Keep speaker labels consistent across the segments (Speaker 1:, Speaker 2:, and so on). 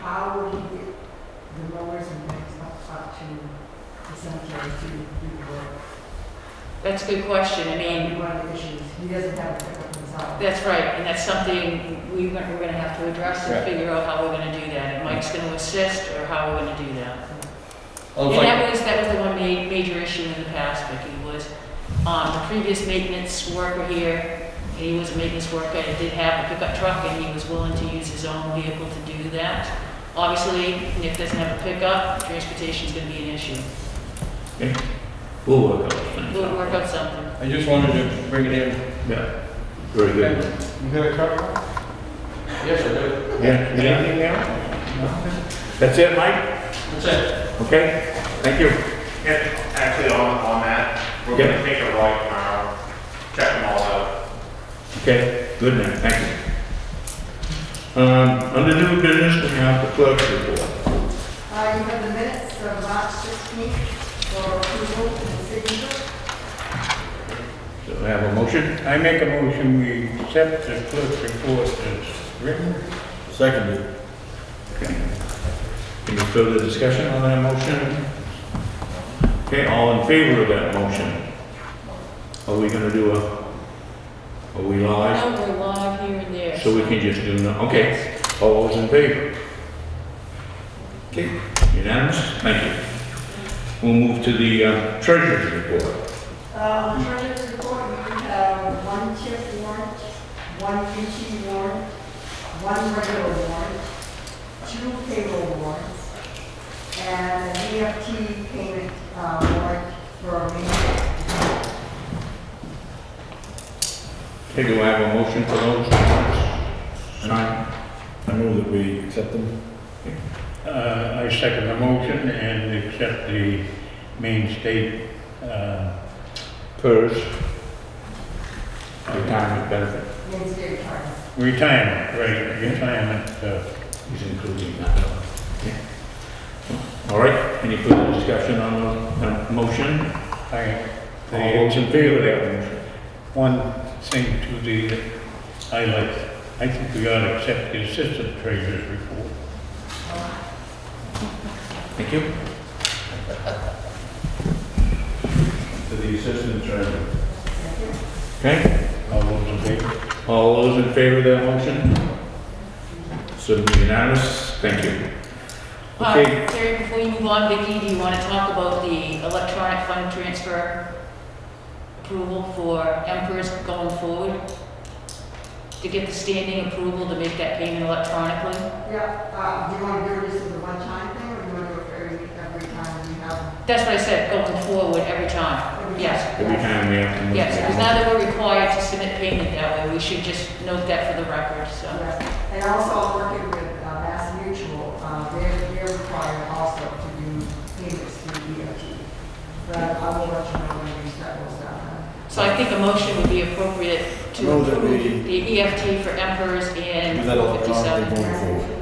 Speaker 1: how would he get the lowers and things up, up to the cemetery to do the work?
Speaker 2: That's a good question. I mean,
Speaker 1: Be One of the issues, he doesn't have a pickup himself.
Speaker 2: that's right, and that's something we- we're going to have to address and
Speaker 3: Right.
Speaker 2: figure out how we're going to do that. And Mike's going to assist or how we're going to do that.
Speaker 3: Oh,
Speaker 2: And
Speaker 3: it's like,
Speaker 2: that was, that was the one ma- major issue in the past, Vicki, was, um, the previous maintenance worker here, he was a maintenance worker, and did have a pickup truck, and he was willing to use his own vehicle to do that. Obviously, if doesn't have a pickup, transportation's gonna be an issue.
Speaker 4: We'll work out things.
Speaker 2: We'll work out something.
Speaker 3: I just wanted to bring it in.
Speaker 4: Yeah, very good.
Speaker 3: You got a car? Yes, I do.
Speaker 4: Yeah, anything now? That's it, Mike?
Speaker 3: That's it.
Speaker 4: Okay, thank you.
Speaker 5: And actually, on, on that, we're gonna
Speaker 4: Yeah.
Speaker 5: take a ride tomorrow, check them all out.
Speaker 4: Okay, good man, thank you. Um, under new business, we have the clerk's report.
Speaker 1: Uh, you have the minutes of March sixteenth for approval and signature.
Speaker 4: So we have a motion?
Speaker 3: I make a motion, we accept the clerk's report as written.
Speaker 4: Seconded. Any further discussion on that motion? Okay, all in favor of that motion? Are we gonna do a, are we live?
Speaker 2: Now we're live here and there.
Speaker 4: So we can just do, no- okay, all those in favor? Okay, unanimous, thank you. We'll move to the uh, treasurer's report.
Speaker 1: Uh, the treasurer's report, we have one chip warrant, one duty warrant, one regular warrant, two payroll warrants, and an EFT payment, uh, warrant for me.
Speaker 4: Okay, do I have a motion for those? warrants? Signed.
Speaker 6: I move that we accept them.
Speaker 3: Uh, I second the motion and accept the main state, uh,
Speaker 4: PERS. Retirement benefit.
Speaker 1: Wednesday, sorry.
Speaker 3: retirement, right, retirement, uh,
Speaker 4: He's including that. Okay. All right, any further discussion on the the motion?
Speaker 3: I.
Speaker 4: All those in favor of that motion?
Speaker 3: One thing to the, I like, I think we ought to accept the assistant treasurer's report.
Speaker 4: Thank you.
Speaker 6: To the assistant treasurer.
Speaker 4: Okay,
Speaker 3: All those in favor?
Speaker 4: all those in favor of that motion? So unanimous, thank you.
Speaker 2: Uh,
Speaker 4: Okay,
Speaker 2: Terry, before you move on, Vicki, do you want to talk about the electronic fund transfer approval for Emperor's going forward? To get the standing approval to make that payment electronically?
Speaker 1: Yeah, uh, do you want to do this as a one-time thing, or do you want to do it every, every time we have?
Speaker 2: That's what I said, going forward every time, yes.
Speaker 4: Every time we have to move.
Speaker 2: Yes, because now that we're required to submit payment that way, we should just note that for the record, so.
Speaker 1: Yes. And also, I'm working with uh, Mass Mutual, uh, they're, they're required also to do payments through DOT. But I will let you know when we start those down.
Speaker 2: So I think a motion would be appropriate to
Speaker 6: Move that
Speaker 2: approve the EFT for Emperor's and
Speaker 6: Do that electronically
Speaker 2: 457.
Speaker 6: going forward.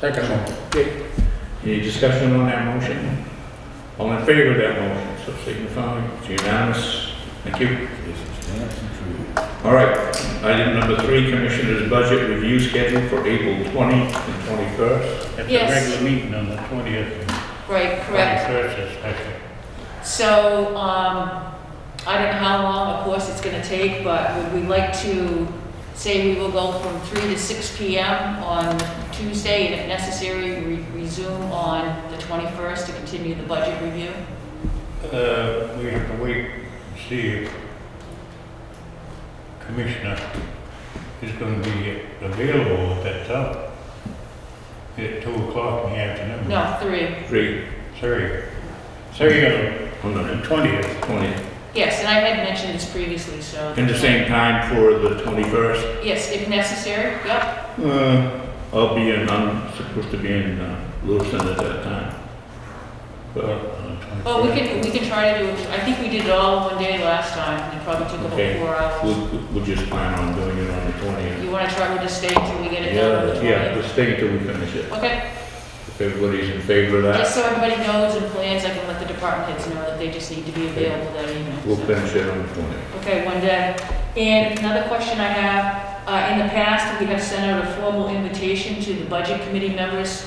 Speaker 3: Second motion.
Speaker 4: Okay. Any discussion on that motion? All in favor of that motion, so signify, it's unanimous. Thank you.
Speaker 6: Yes, yes, true.
Speaker 4: All right, item number three, Commissioner's Budget Review Schedule for April 20 and 21st.
Speaker 3: At the
Speaker 2: Yes.
Speaker 3: regular meeting on the twentieth,
Speaker 2: Right, correct.
Speaker 3: twenty-first, is special.
Speaker 2: So, um, I don't know how long, of course, it's gonna take, but would we like to say we will go from three to six P M on Tuesday, and if necessary, re- resume on the twenty-first to continue the budget review?
Speaker 3: Uh, we have to wait, and see if Commissioner is gonna be available at that time. At two o'clock in the afternoon.
Speaker 2: No, three,
Speaker 4: Three,
Speaker 3: Sorry. Sorry, on
Speaker 4: on
Speaker 3: the
Speaker 4: the
Speaker 3: twentieth.
Speaker 4: 20th.
Speaker 2: yes, and I had mentioned this previously, so.
Speaker 4: And the same time for the 21st.
Speaker 2: Yes, if necessary, yep,
Speaker 4: Uh, I'll be in, I'm supposed to be in uh, Lewiston at that time. But, uh,
Speaker 2: well, we can, we can try to do, I think we did it all one day last time, and it probably took
Speaker 4: Okay.
Speaker 2: about four hours.
Speaker 4: we'll, we'll just plan on doing it on the 20th.
Speaker 2: You wanna try to stay until we get it done on the
Speaker 4: Yeah,
Speaker 2: twentieth?
Speaker 4: just stay until we finish it.
Speaker 2: Okay.
Speaker 4: If everybody's in favor of that,
Speaker 2: Just so everybody knows and plans, I can let the department heads know that they just need to be available that evening.
Speaker 4: we'll
Speaker 2: so.
Speaker 4: finish it on the 20th.
Speaker 2: Okay, one day. And another question I have, Uh, in the past, we have sent out a formal invitation to the budget committee members